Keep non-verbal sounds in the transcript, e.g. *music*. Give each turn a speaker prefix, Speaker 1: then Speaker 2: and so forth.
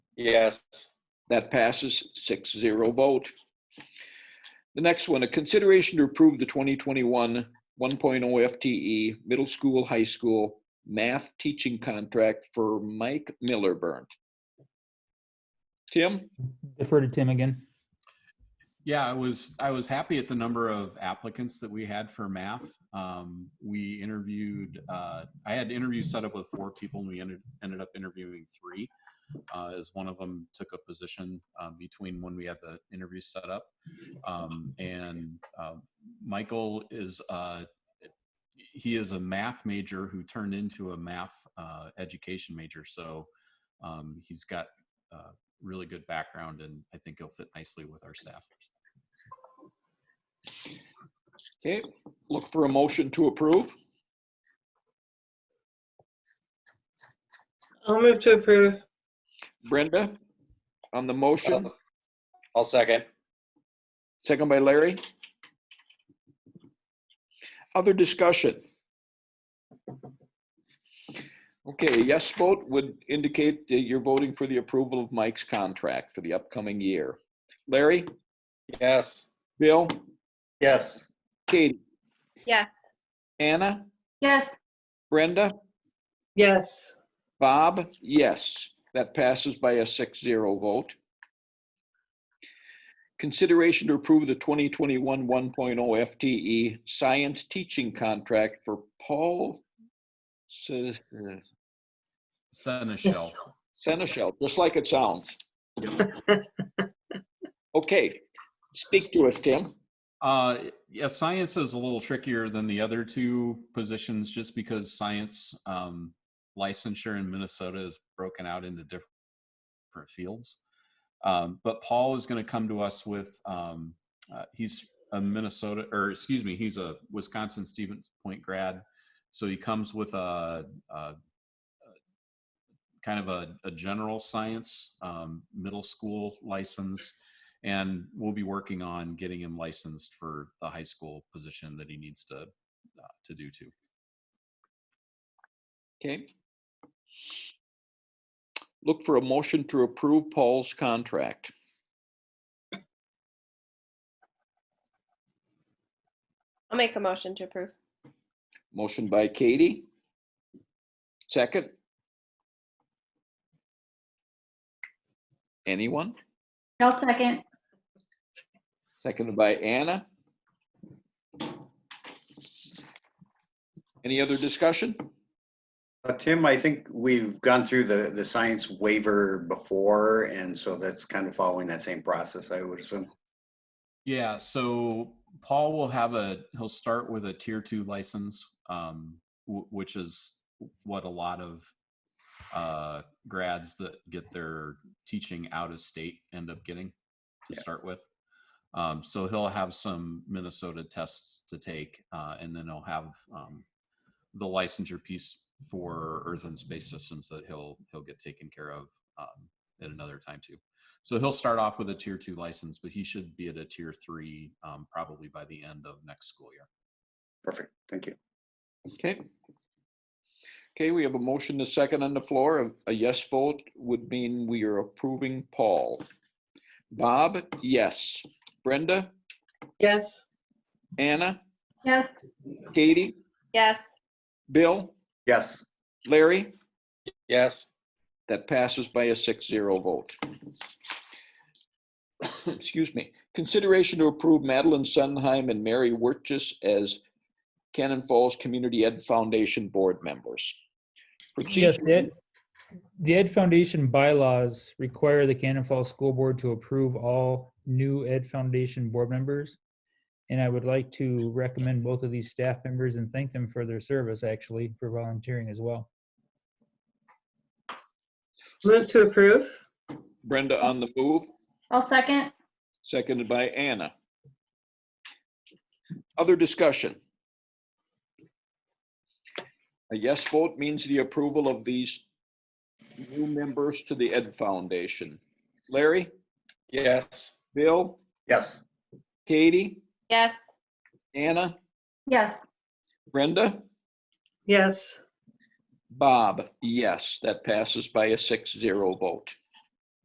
Speaker 1: Yes.
Speaker 2: That passes 6-0 vote. The next one, a consideration to approve the 2021 1.0 FTE E middle school, high school math teaching contract for Mike Millerburn. Tim,
Speaker 3: Defer to Tim again.
Speaker 4: Yeah, I was I was happy at the number of applicants that we had for math. Um, we interviewed. Uh, I had interviews set up with four people, and we ended ended up interviewing three, uh, as one of them took a position uh, between when we had the interview set up. Um, and uh, Michael is uh, he is a math major who turned into a math uh, education major, so um, he's got. Uh, really good background and i think he'll fit nicely with our staff
Speaker 2: okay, look for a motion to approve.
Speaker 5: I'll move to approve.
Speaker 2: Brenda, on the motion,
Speaker 1: I'll- I'll second.
Speaker 2: second by Larry. Other discussion? Okay, yes vote would indicate that you're voting for the approval of Mike's contract for the upcoming year. Larry,
Speaker 1: Yes.
Speaker 2: Bill,
Speaker 6: yes,
Speaker 2: Katie,
Speaker 7: Yes.
Speaker 2: Anna,
Speaker 7: Yes.
Speaker 2: Brenda,
Speaker 5: Yes.
Speaker 2: Bob, yes. That passes by a 6-0 vote. Consideration to approve the 2021 1.0 FTE E science teaching contract for Paul Se- uh,
Speaker 4: Seneschal.
Speaker 2: Seneschal, just like it sounds. Okay, speak to us, Tim.
Speaker 4: Uh, yeah, science is a little trickier than the other two positions just because science um, licensure in Minnesota is broken out into diff- different fields. Um, but Paul is going to come to us with um, uh, he's a Minnesota or excuse me, he's a Wisconsin Stevens Point grad, so he comes with a, a kind of a, a general science um, middle school license and we'll be working on getting him licensed for the high school position that he needs to uh, to do too.
Speaker 2: Okay. Look for a motion to approve Paul's contract.
Speaker 7: I'll make a motion to approve.
Speaker 2: Motion by Katie. Second. Anyone?
Speaker 8: I'll second.
Speaker 2: Seconded by Anna. Any other discussion?
Speaker 6: Uh, Tim, I think we've gone through the, the science waiver before, and so that's kind of following that same process, I would assume.
Speaker 4: Yeah, so Paul will have a he'll start with a tier two license, um, w- which is what a lot of uh, grads that get their teaching out of state end up getting to
Speaker 6: Yeah.
Speaker 4: start with. Um, so he'll have some Minnesota tests to take, uh, and then he'll have um, the licensure piece for Earth and Space Systems that he'll he'll get taken care of um, at another time too. So he'll start off with a tier two license, but he should be at a tier three um, probably by the end of next school year.
Speaker 6: Perfect, thank you.
Speaker 2: Okay. Okay, we have a motion to second on the floor. A- A yes vote would mean we are approving Paul. Bob, yes. Brenda,
Speaker 5: Yes.
Speaker 2: Anna,
Speaker 8: Yes.
Speaker 2: Katie,
Speaker 7: Yes.
Speaker 2: Bill,
Speaker 6: Yes,
Speaker 2: Larry?
Speaker 1: Yes.
Speaker 2: That passes by a 6-0 vote. *coughs* Excuse me. Consideration to approve Madeline Sunheim and Mary Wirtjes as Cannon Falls Community Ed Foundation Board members.
Speaker 3: Yes,
Speaker 2: Procedure-
Speaker 3: the Ed, the Ed Foundation bylaws require the Cannon Falls School Board to approve all new Ed Foundation board members. And I would like to recommend both of these staff members and thank them for their service, actually, for volunteering as well.
Speaker 5: Move to approve.
Speaker 2: Brenda on the move,
Speaker 8: I'll second.
Speaker 2: seconded by Anna. Other discussion? A yes vote means the approval of these new members to the Ed Foundation. Larry,
Speaker 1: Yes.
Speaker 2: Bill,
Speaker 6: yes,
Speaker 2: Katie?
Speaker 7: Yes.
Speaker 2: Anna,
Speaker 8: Yes.
Speaker 2: Brenda,
Speaker 5: Yes.
Speaker 2: Bob, yes, that passes by a 6-0 vote.